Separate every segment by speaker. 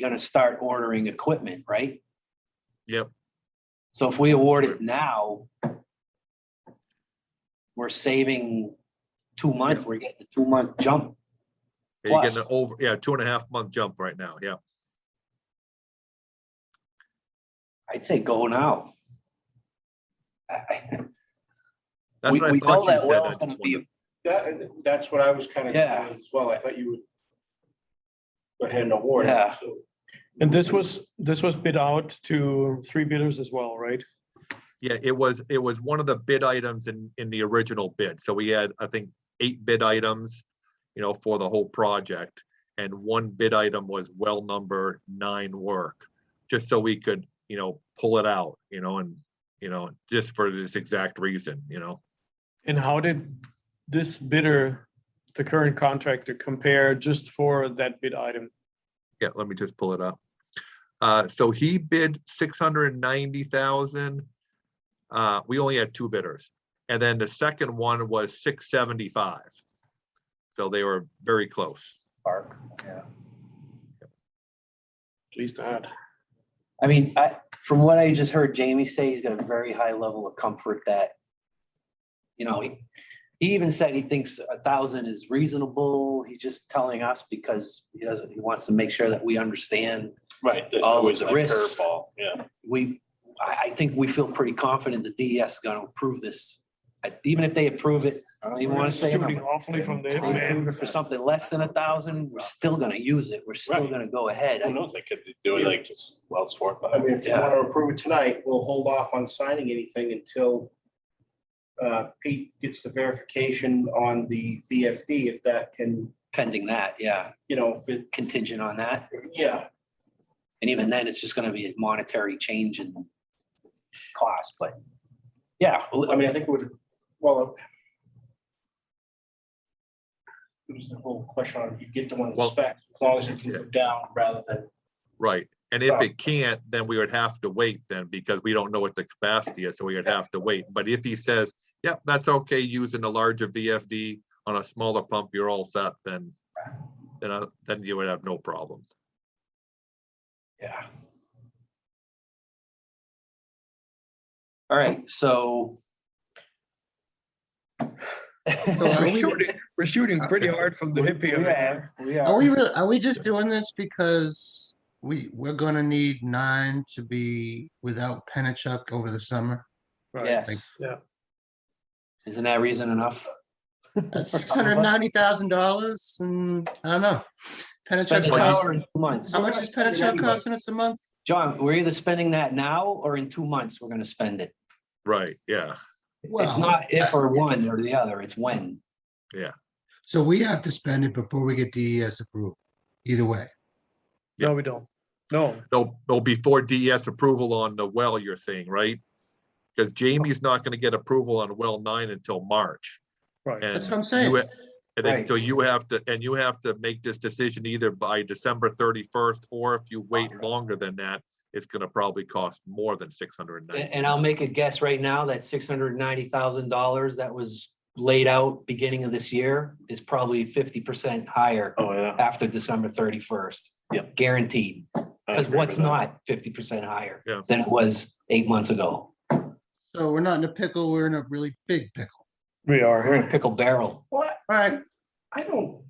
Speaker 1: gonna start ordering equipment, right?
Speaker 2: Yep.
Speaker 1: So if we award it now, we're saving two months, we're getting a two-month jump.
Speaker 2: You're getting
Speaker 1: Plus.
Speaker 2: an over, yeah, two and a half month jump right now, yeah.
Speaker 1: I'd say go now. I- I-
Speaker 2: That's
Speaker 1: We
Speaker 2: what
Speaker 1: we
Speaker 2: I
Speaker 1: know
Speaker 2: thought you
Speaker 1: that
Speaker 2: said. I
Speaker 1: well's
Speaker 2: just
Speaker 1: gonna be,
Speaker 2: wondered.
Speaker 3: That, that's what I was kind of.
Speaker 1: Yeah.
Speaker 3: As well, I thought you would. Go ahead and award. it,
Speaker 1: Yeah.
Speaker 3: so.
Speaker 4: And this was, this was bid out to three bidders as well, right?
Speaker 2: Yeah, it was, it was one of the bid items in, in the original bid. So we had, I think, eight bid items, you know, for the whole project. And one bid item was well number nine work, just so we could, you know, pull it out, you know, and, you know, just for this exact reason, you know.
Speaker 4: And how did this bidder, the current contractor, compare just for that bid item?
Speaker 2: Yeah, let me just pull it up. Uh, so he bid six hundred and ninety thousand. Uh, we only had two bidders, and then the second one was six seventy-five. So they were very close.
Speaker 1: Park, yeah.
Speaker 4: Please add.
Speaker 1: I mean, I, from what I just heard Jamie say, he's got a very high level of comfort that, you know, he, he even said he thinks a thousand is reasonable. He's just telling us because he doesn't, he wants to make sure that we understand.
Speaker 5: Right, there's
Speaker 1: All
Speaker 5: always a
Speaker 1: the risks.
Speaker 5: curveball, yeah.
Speaker 1: We, I, I think we feel pretty confident the DES is gonna approve this. I- Even if they approve it, I don't even wanna say. a number.
Speaker 4: Shooting Awfully from the.
Speaker 1: If They approve it for something less than a thousand, we're still gonna use it. We're still
Speaker 5: Right.
Speaker 1: gonna go ahead.
Speaker 5: Who knows, they could do it like just Wells Fargo.
Speaker 3: I mean, if you
Speaker 1: Yeah.
Speaker 3: want to approve it tonight, we'll hold off on signing anything until. Uh, Pete gets the verification on the VFD, if that can,
Speaker 1: Pending that, yeah,
Speaker 3: you know, if it,
Speaker 1: contingent on that.
Speaker 3: yeah,
Speaker 1: And even then, it's just gonna be a monetary change in cost, but yeah,
Speaker 3: I mean, I think it would, well. uh, It was the whole question on, you get the one
Speaker 2: Well-
Speaker 3: that's specs, as long as it can go down rather than,
Speaker 2: Right, and if
Speaker 3: Wow.
Speaker 2: it can't, then we would have to wait then, because we don't know what the capacity is, so we would have to wait. But if he says, yep, that's okay, using a larger VFD on a smaller pump, you're all set, then then, I- then you would have no problem.
Speaker 1: yeah. All right, so.
Speaker 6: are we-
Speaker 4: We're shooting pretty hard from the hip
Speaker 1: Uh, We
Speaker 4: here.
Speaker 1: are, we
Speaker 6: Are
Speaker 1: are.
Speaker 6: we really, are we just doing this because we, we're gonna need nine to be without Penachuk over the summer?
Speaker 4: Right.
Speaker 1: Yes,
Speaker 4: Yeah.
Speaker 1: isn't that reason enough?
Speaker 6: That's six hundred and ninety thousand dollars and, I don't know.
Speaker 1: Spend
Speaker 6: Penachuk's
Speaker 1: an
Speaker 2: cost-
Speaker 1: hour in two months.
Speaker 6: how much is Penachuk costing us a month?
Speaker 1: John, we're either spending that now or in two months, we're gonna spend it.
Speaker 2: Right, yeah.
Speaker 6: Well,
Speaker 1: It's not if or one or the other, it's when.
Speaker 6: So we have to spend it before we get DES approval, either way.
Speaker 4: No, we don't. No,
Speaker 2: No, no, before DES E approval on the well, you're saying, right? Because Jamie's not gonna get approval on well nine until March.
Speaker 4: right.
Speaker 2: and
Speaker 6: That's what I'm
Speaker 2: you
Speaker 6: saying.
Speaker 2: ha- And then, so
Speaker 1: Right.
Speaker 2: you have to, and you have to make this decision either by December thirty-first, or if you wait longer than that, it's gonna probably cost more than six hundred and
Speaker 1: A-
Speaker 2: ninety.
Speaker 1: And I'll make a guess right now that six hundred and ninety thousand dollars that was laid out beginning of this year is probably fifty percent higher
Speaker 5: Oh, yeah.
Speaker 1: after December thirty-first.
Speaker 5: Yep.
Speaker 1: Guaranteed,
Speaker 5: I
Speaker 1: because
Speaker 5: agree
Speaker 1: what's
Speaker 5: with that.
Speaker 1: not fifty percent higher
Speaker 2: Yeah.
Speaker 1: than it was eight months ago?
Speaker 6: So we're not in a pickle, we're in a really big pickle.
Speaker 4: We
Speaker 1: We're
Speaker 4: are.
Speaker 1: in a pickle barrel.
Speaker 3: what,
Speaker 6: All right,
Speaker 3: I don't,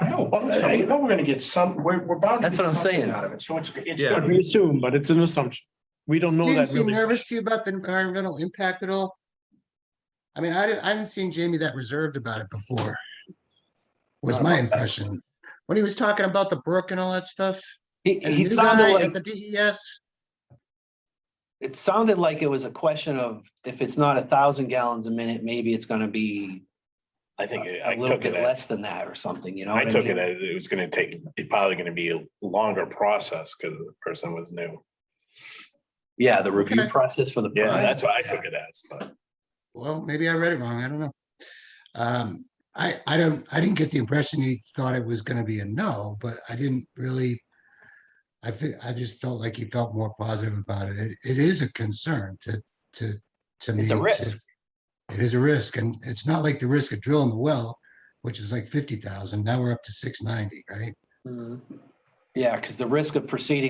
Speaker 3: I don't, think so. we know we're gonna get some, we're, we're bound. to
Speaker 1: That's
Speaker 3: get
Speaker 1: what I'm
Speaker 3: something
Speaker 1: saying.
Speaker 3: Out of it, so it's, it's
Speaker 2: Yeah.
Speaker 3: gonna
Speaker 4: We
Speaker 3: be
Speaker 4: assume, but it's an assumption. We don't know
Speaker 6: didn't
Speaker 4: that
Speaker 6: seem
Speaker 4: really.
Speaker 6: nervous to you about the environmental impact at all? I mean, I didn't, I haven't seen Jamie that reserved about it before. Was my impression. When he was talking about the brook and all that stuff,
Speaker 1: He,
Speaker 6: and
Speaker 1: he
Speaker 6: the new
Speaker 1: sounded
Speaker 6: guy
Speaker 1: like,
Speaker 6: at the E DES,
Speaker 1: it sounded like it was a question of if it's not a thousand gallons a minute, maybe it's gonna be
Speaker 5: I think
Speaker 1: a
Speaker 5: I
Speaker 1: a little
Speaker 5: took it
Speaker 1: bit
Speaker 5: as,
Speaker 1: less than that or something, you know?
Speaker 5: I
Speaker 1: what
Speaker 5: took
Speaker 1: mean?
Speaker 5: it as it was gonna take, it probably gonna be a longer process because the person was new.
Speaker 1: Yeah, the review
Speaker 6: Okay.
Speaker 1: process for the.
Speaker 5: Yeah,
Speaker 1: project.
Speaker 5: that's what I took it as, but
Speaker 6: well, maybe I read it wrong, I don't know. Um, I, I don't, I didn't get the impression he thought it was gonna be a no, but I didn't really. I fe- I just felt like he felt more positive about it. It, it is a concern to, to, to me.
Speaker 1: It's a
Speaker 6: to-
Speaker 1: risk.
Speaker 6: It is a risk, and it's not like the risk of drilling the well, which is like fifty thousand, now we're up to six ninety, right?
Speaker 1: Mhm. Yeah, because the risk of proceeding